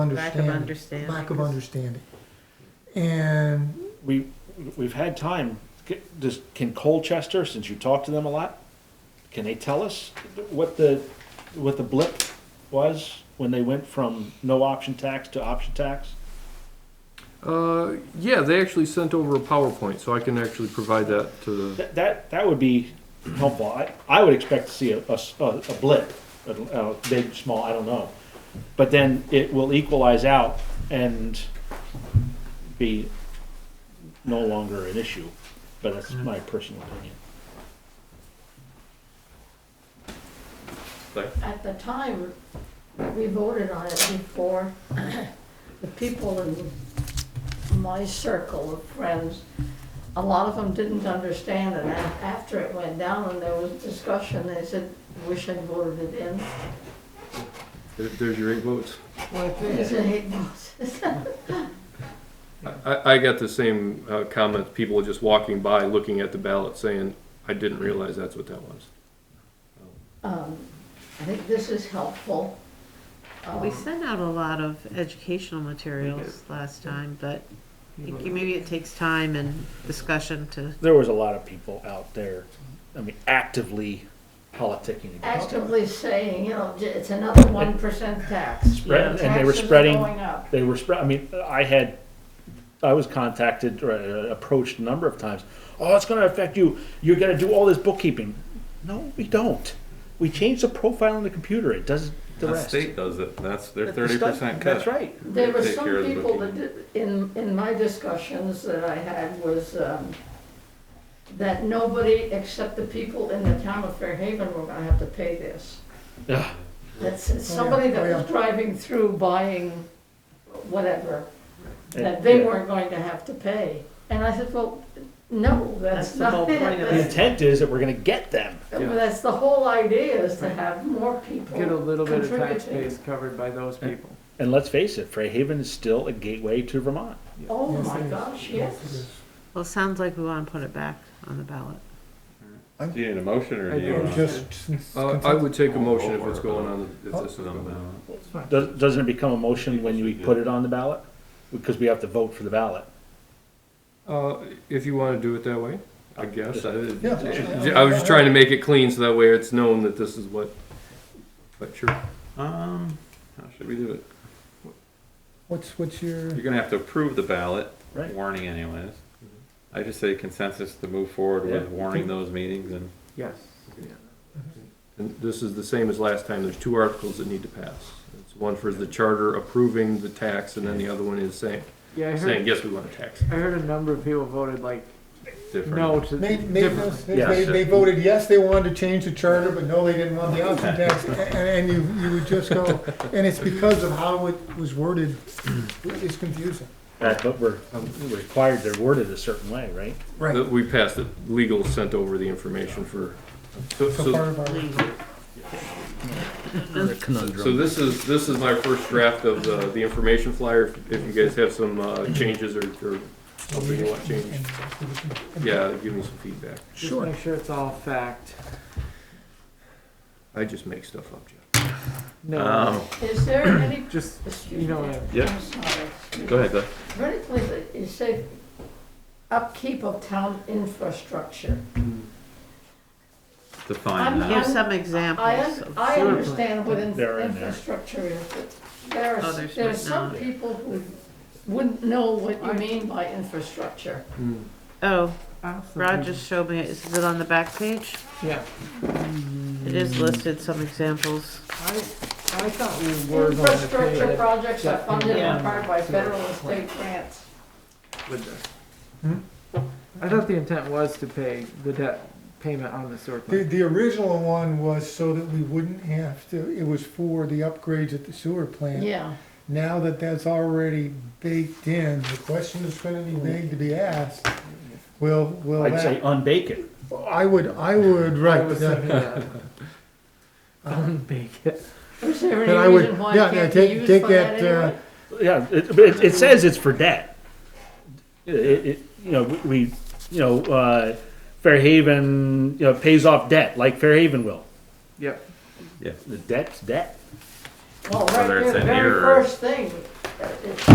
Lack of understanding. understanding. Lack of understanding. And we, we've had time, C- does, can Colchester, since you talk to them a lot, can they tell us what the, what the blip was when they went from no option tax to option tax? Uh, yeah, they actually sent over a PowerPoint, so I can actually provide that to the. That, that, that would be helpful. I, I would expect to see a, a s- a- a blip, a, a big, small, I don't know. But then it will equalize out and be no longer an issue, but that's my personal opinion. At the time, we voted on it before the people in my circle of friends, a lot of them didn't understand it. And after it went down and there was discussion, they said, wish I'd voted it in. There- There's your eight votes. They said, "Hey, no." I- I, I got the same uh, comments. People just walking by, looking at the ballot, saying, "I didn't realize that's what that was." Um, I think this is helpful. We Um, sent out a lot of educational materials last time, but I think maybe it takes time and discussion to, there was a lot of people out there, I mean, actively politicking against it. Actively saying, you know, it's another one percent tax. Spread- Taxes and they were are spreading, going up. they were spread, I mean, I had, I was contacted or uh, approached a number of times. Oh, it's gonna affect you, you're gonna do all this bookkeeping. No, we don't. We change the profile on the computer, it does the The rest. state does it, that's their But the thirty stuff- percent cut. That's right. There were Take some care of the people that, bookkeeping. did- in, in my discussions that I had was, um, that nobody except the people in the town of Fairhaven were gonna have to pay this. Ugh. That's, it's somebody Oh, that yeah. was driving through buying whatever, that And- they yeah. weren't going to have to pay. And I said, well, no, That's that's the whole not it. point of The it. That's- intent is that we're gonna get them. well, That's the whole idea is to have more people get a little bit of tax contributing. base covered by those people. And let's face it, Fairhaven is still a gateway to Vermont. Oh Yes, my it is. gosh, it yes. is. well, it sounds like we want to put it back on the ballot. Do you need a motion or I do you? do. wanna- just since. Uh, I would take a motion if it's going on. If this is going on. Does, doesn't it become a motion when you put it on the ballot? Because we have to vote for the ballot. Uh, if you want to do it that way, I guess. I, Yeah. I was just trying to make it clean so that way it's known that this is what. But sure. Um, how should we do it? What's, what's your, You're gonna have to approve the ballot, Right. warning anyways. I just say consensus to move forward Yeah. with warning those meetings and Yes. And this is the same as last time, there's two articles that need to pass. It's one for the charter approving the tax, and then the other one is saying, Yeah, I saying, heard, yes, we want a tax. I heard a number of people voted like different. no to they, they, different. they, they voted yes, they wanted to change the charter, but no, they didn't want the option tax. And, and you, you would just go, and it's because of how it was worded, it's confusing. Right, but we're we're required, they're worded a certain way, right? Right. That Uh, We passed it, legal sent over the information for, so, So part so, of our, so this is, this is my first draft of the, the information flyer. If- If you guys have some, uh, changes or, or something you want changed, yeah, give me some feedback. Just Sure. make sure it's all fact. I just make stuff up, Jeff. No, Um, Is there any, just excuse you me, know I'm what I yeah, sorry. excuse go ahead, Doug. Vertically, you say upkeep of town infrastructure. Define that. Give I'm- some I, examples. un- of- I Sure. understand what in- They're in there. infrastructure is, but there Oh, are, there's there are not some now. people who wouldn't know what you mean by infrastructure. Oh, Awesome. Rod just showed me, it. is it on the back page? Yeah, It is listed, some examples. I, I thought we were going to pay Infrastructure it projects are Yeah. funded in Yeah. part by federal and state grants. with this. I thought the intent was to pay the debt payment on the sewer the, plant. the original one was so that we wouldn't have to, it was for the upgrades at the sewer plant. Yeah, Now that that's already baked in, the question is gonna be made to be asked, will, will I'd say that? unbake it. I would, I would, I right, was but that- thinking that. Unbake it. is there And I any would- reason why yeah, it can't yeah, be take- used take for that that, uh, anyway? Yeah, it, but it, it says it's for debt. It, it, you know, we, you know, uh, Fairhaven, you know, pays off debt like Fairhaven will. Yep. The debt's debt. Well, right Whether there, it's the an very error or- first thing, uh, it's